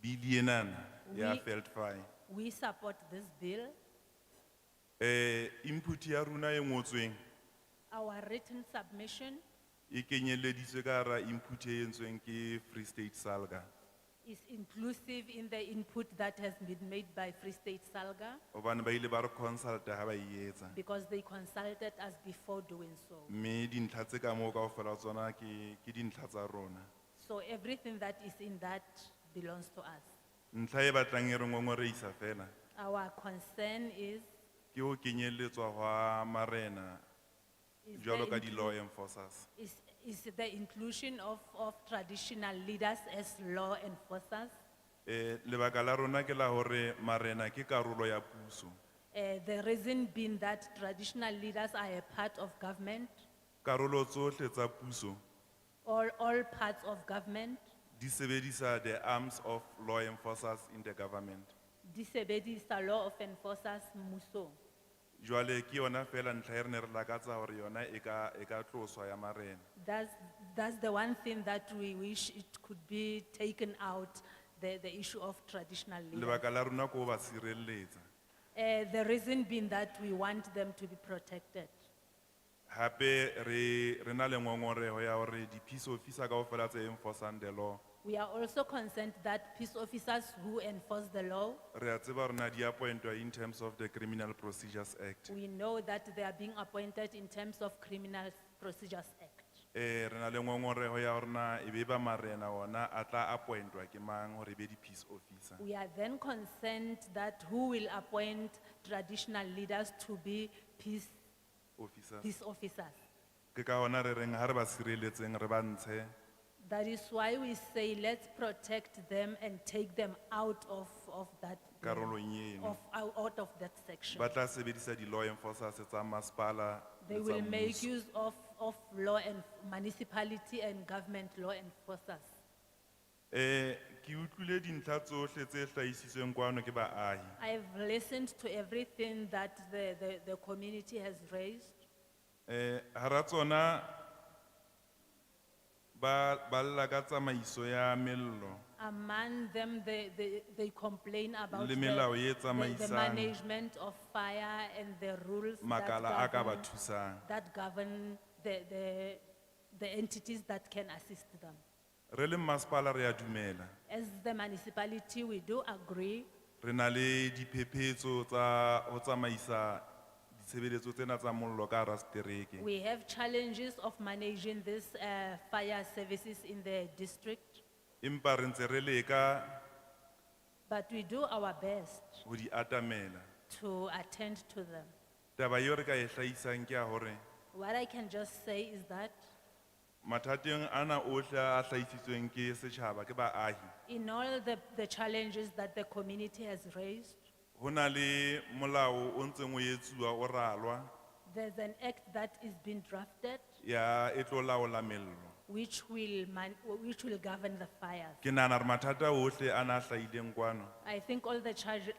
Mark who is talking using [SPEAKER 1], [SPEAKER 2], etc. [SPEAKER 1] Didianan, ya
[SPEAKER 2] Oui.
[SPEAKER 1] Feldfai.
[SPEAKER 2] We support this bill.
[SPEAKER 1] Eh, input ya runa e ngotsweng
[SPEAKER 2] Our written submission
[SPEAKER 1] e kenyeleditswe ka hara input e entsweng ke Free State Salga.
[SPEAKER 2] is inclusive in the input that has been made by Free State Salga
[SPEAKER 1] Obana ba ile ba re consulta ha ba e etsa.
[SPEAKER 2] because they consulted us before doing so.
[SPEAKER 1] Mme dintlha tse ka moo kaofela tsona ke ke dintlha tsa rona.
[SPEAKER 2] So everything that is in that belongs to us.
[SPEAKER 1] Ntlha e batlang e re ngongoreisa fela
[SPEAKER 2] Our concern is.
[SPEAKER 1] ke ho kenyelletswa hwa marena
[SPEAKER 2] is
[SPEAKER 1] jwalo
[SPEAKER 2] the
[SPEAKER 1] ka
[SPEAKER 2] inclu-
[SPEAKER 1] di-law enforcers.
[SPEAKER 2] Is, is the inclusion of, of traditional leaders as law enforcers.
[SPEAKER 1] Eh, lebaka la rona ke la hore marena ke karolo ya puso.
[SPEAKER 2] Uh, the reason being that traditional leaders are a part of government,
[SPEAKER 1] Karolo tsohle tsa puso
[SPEAKER 2] all, all parts of government.
[SPEAKER 1] di sebedisa the arms of law enforcers in the government.
[SPEAKER 2] Di sebedisa law of enforcers muso.
[SPEAKER 1] Jwale ke yona fela ntlha e re ne re lakatsa hore yona e ka e ka tloswa ya marena.
[SPEAKER 2] That's, that's the one thing that we wish it could be taken out, the, the issue of traditional leaders.
[SPEAKER 1] Lebaka la rona ke ho ba sireletsa.
[SPEAKER 2] Uh, the reason being that we want them to be protected.
[SPEAKER 1] Hape re re na le ngongoreho ya hore di-peace officer kaofela tse enforcing the law.
[SPEAKER 2] We are also concerned that peace officers who enforce the law,
[SPEAKER 1] Re a tseba hore na di appointwa in terms of the Criminal Procedures Act.
[SPEAKER 2] we know that they are being appointed in terms of Criminal Procedures Act.
[SPEAKER 1] Eh re na le ngongoreho ya hore na ebe ba marena ona a tla appointwa ke mang hore e be di-peace officer.
[SPEAKER 2] We are then concerned that who will appoint traditional leaders to be peace,
[SPEAKER 1] Officers.
[SPEAKER 2] peace officers.
[SPEAKER 1] Ke ka hona re reng ha re ba sireletseng re ba ntshe
[SPEAKER 2] That is why we say let's protect them and take them out of, of that.
[SPEAKER 1] karolong eno.
[SPEAKER 2] Of, out out of that section.
[SPEAKER 1] ba tla sebedisa di-law enforcers tsa masepala
[SPEAKER 2] They
[SPEAKER 1] le tsa
[SPEAKER 2] will make
[SPEAKER 1] mmuso.
[SPEAKER 2] use of, of law and municipality and government law enforcers.
[SPEAKER 1] Eh, ke utlwile dintlha tsohle tse hlahisitsweng kwano ke baahi.
[SPEAKER 2] I've listened to everything that the, the, the community has raised.
[SPEAKER 1] Eh, hara tsona ba, ba lla ka tsamaiso ya mello.
[SPEAKER 2] Among them, they, they, they complain about
[SPEAKER 1] Le
[SPEAKER 2] the,
[SPEAKER 1] melao e
[SPEAKER 2] the- the
[SPEAKER 1] tsamaisang.
[SPEAKER 2] management of fire and the rules that
[SPEAKER 1] Makala a ka ba
[SPEAKER 2] govern-
[SPEAKER 1] thusang.
[SPEAKER 2] that govern the, the, the entities that can assist them.
[SPEAKER 1] Re le masepala re a dumela.
[SPEAKER 2] As the municipality, we do agree,
[SPEAKER 1] Re na le diphephetso tsa ho tsamaisa ditshebeletso tsena tsa mollo ka hara setereke.
[SPEAKER 2] we have challenges of managing this uh, fire services in the district,
[SPEAKER 1] Empa re ntse re leka
[SPEAKER 2] but we do our best
[SPEAKER 1] ho di atamela.
[SPEAKER 2] to attend to them.
[SPEAKER 1] Taba eo re ka e hlahisang ke ya hore
[SPEAKER 2] What I can just say is that
[SPEAKER 1] mathateng ana ohle a hlahisitsweng ke setjhaba ke baahi
[SPEAKER 2] in all the, the challenges that the community has raised,
[SPEAKER 1] ho na le molao o ntseng o etsuwa o ralwa
[SPEAKER 2] there's an act that is being drafted
[SPEAKER 1] ya e tlo laola mello
[SPEAKER 2] which will man, which will govern the fires.
[SPEAKER 1] ke nahana re mathata ohle a na a hlahileng kwano
[SPEAKER 2] I think all the charge,